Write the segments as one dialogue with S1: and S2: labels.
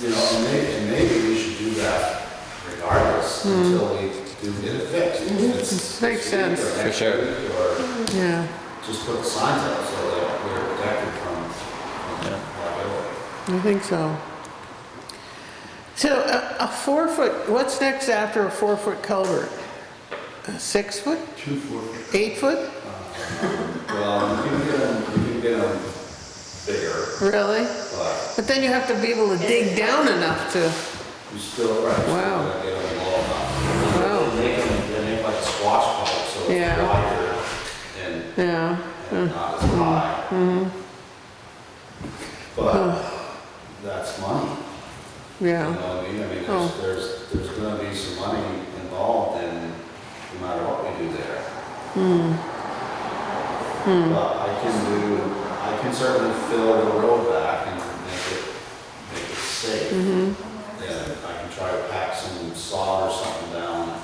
S1: You know, and maybe, and maybe we should do that regardless until we do get it fixed. If it's
S2: Hmm. Mm-hmm.
S1: this
S2: Makes
S1: week or
S2: sense.
S1: next
S3: For sure.
S1: week, Or
S2: yeah,
S1: just put the signs up so that we're protected from from liability.
S2: I think so. So a, a four foot, what's next after a four foot culvert? A six foot,
S1: Two foot.
S2: eight foot?
S1: Well, you can get them, you can get them bigger,
S2: Really?
S1: but
S2: But then you have to be able to dig down enough to,
S1: you still, right, you
S2: Wow.
S1: gotta get them long enough.
S2: Wow.
S1: They make them, they make like squash pipes, so it's
S2: Yeah.
S1: wider and
S2: yeah.
S1: and not as high. But that's money, you know
S2: Hmm. Yeah,
S1: what I mean? I mean,
S2: Oh.
S1: there's, there's, there's gonna be some money involved in, no matter what we do there.
S2: Hmm.
S1: But I can do, I can certainly fill the road back and make it, make it safe.
S2: Mm-hmm.
S1: And I can try to pack some sod or something down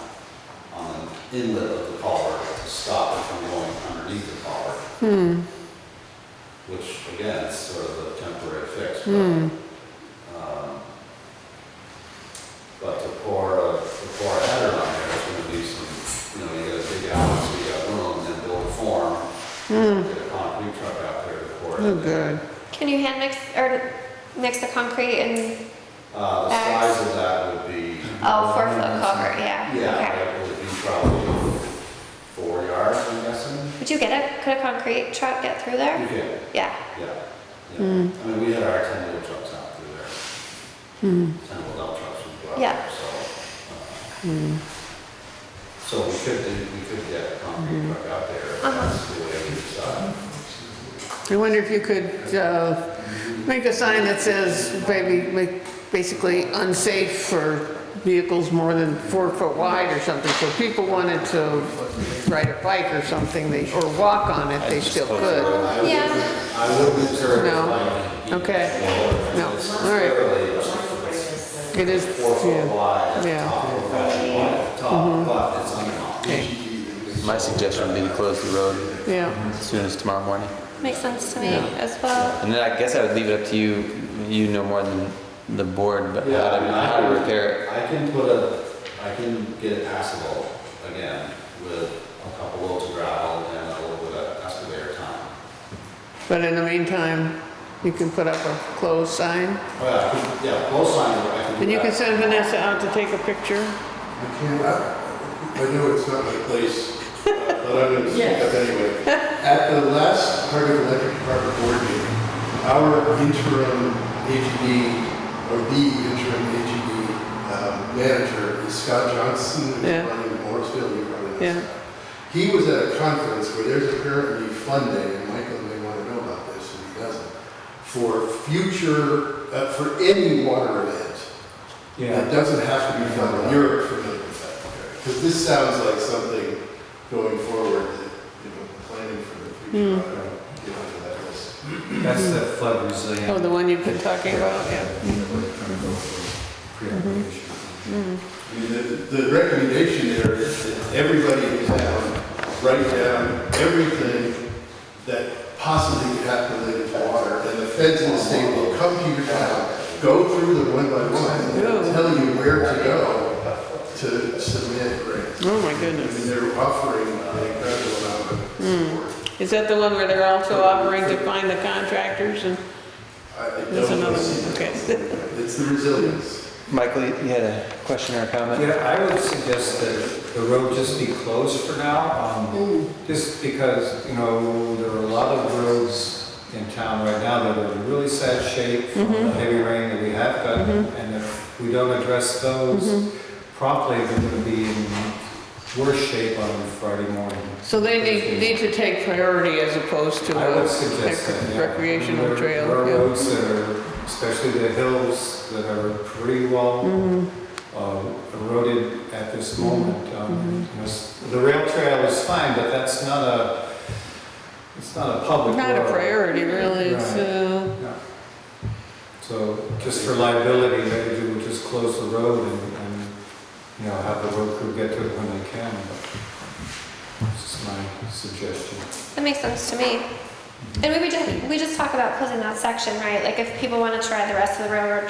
S1: on the inlet of the culvert to stop it from going underneath the culvert.
S2: Hmm.
S1: Which again, is sort of a temporary fix, but,
S2: Hmm.
S1: um, but to pour a, to pour a header on there, it's gonna be some, you know, you gotta dig out, so you got room, then build a form. Get a concrete truck out there to pour it.
S2: Hmm. oh,
S1: in there.
S2: good.
S4: Can you hand mix, or mix the concrete and,
S1: Uh, the
S4: Bags.
S1: size of that would be.
S4: oh, four foot cover, yeah?
S1: Yeah,
S4: okay.
S1: that would be probably four yards, I'm guessing.
S4: Would you get a, could a concrete truck get through
S1: You
S4: there?
S1: can,
S4: Yeah,
S1: yeah, yeah. I
S4: Hmm.
S1: mean, we had our ten wheel trucks out through there. Ten wheel dump trucks would go out
S4: Hmm. Yeah. Hmm.
S1: there, so. uh, So we could, do- we could get a
S4: Hmm.
S1: concrete truck out there, if
S4: Uh-huh.
S1: that's the way we decide.
S2: I wonder if you could, uh, make a sign that says, baby, make, basically unsafe for vehicles more than four foot wide or something, so if people wanted to ride a bike or something, they, or walk on it, they still could.
S1: I wouldn't,
S4: yeah,
S1: I wouldn't serve
S2: No.
S1: like.
S2: Okay, No.
S1: It's
S2: All right.
S1: clearly, it's
S2: it is,
S1: four foot
S2: yeah,
S1: wide,
S2: Yeah.
S1: top, four foot wide, top, but it's unlocked.
S3: My suggestion would be to close the road
S2: yeah,
S3: as soon as tomorrow morning.
S4: makes sense to me as well.
S3: And then I guess I would leave it up to you, you know more than the board, but
S1: Yeah,
S3: how
S1: I
S3: to,
S1: mean, I
S3: how to
S1: would-
S3: repair it.
S1: I can put a, I can get it passable again with a couple loads of gravel and a little bit of excavator time.
S2: but in the meantime, you can put up a closed sign,
S1: Well, I could- yeah, both signs, I can do that.
S2: and you can send Vanessa out to take a picture.
S5: I can't, I know it's not my place, uh, but I'm gonna speak up anyway. At the last Hardwick Electric Department board meeting, our interim AGD, or the interim AGD um, manager is Scott Johnson, who's
S2: Yeah.
S5: running Morrisville, you probably know
S2: Yeah.
S5: Scott. He was at a conference where there's apparently funding, and Michael may want to know about this, and he doesn't, for future, uh, for any water event. It doesn't have to be from Europe for me, because this sounds like something going forward that, you know, planning for the future. I don't get onto that list.
S6: That's the flood resilient.
S2: Oh, the one you've been talking about, yeah. Mm-hmm.
S5: I mean, the, the recommendation there is that everybody in town write down everything that possibly could happen related to water, and the feds and the state will come to your town, go through them one by one, and they'll tell you where to go to submit grants.
S2: Oh, my
S5: I mean,
S2: goodness.
S5: they're offering an incredible amount of support.
S2: Is that the one where they're also offering to find the contractors and,
S5: I- I don't
S2: That's another
S5: wanna see
S2: one,
S5: that.
S2: okay.
S5: It's the resilience.
S3: Michael, you had a question or a comment?
S6: Yeah, I would suggest that the road just be closed for now, um, just because, you know, there are a lot of roads in town right now that are in really sad shape from the heavy rain that we have gotten, and if we don't address those promptly, they're gonna be in worse shape on Friday morning.
S2: so they need, need to take priority as opposed to
S6: I would
S2: a
S6: suggest that, yeah.
S2: rec- recreational
S6: There-
S2: trail,
S6: There are
S2: yeah.
S6: roads that are, especially the hills, that are pretty well
S2: Mm-hmm.
S6: uh, eroded at this moment. Um, you know, s- The rail trail is fine, but that's not a, it's not a public road.
S2: Not a priority, really, it's, uh,
S6: No. So just for liability, maybe we would just close the road and, and, you know, have the road crew get to it when they can. This is my suggestion.
S4: That makes sense to me. And we would just, we just talk about closing that section, right? Like if people wanna try the rest of the railroad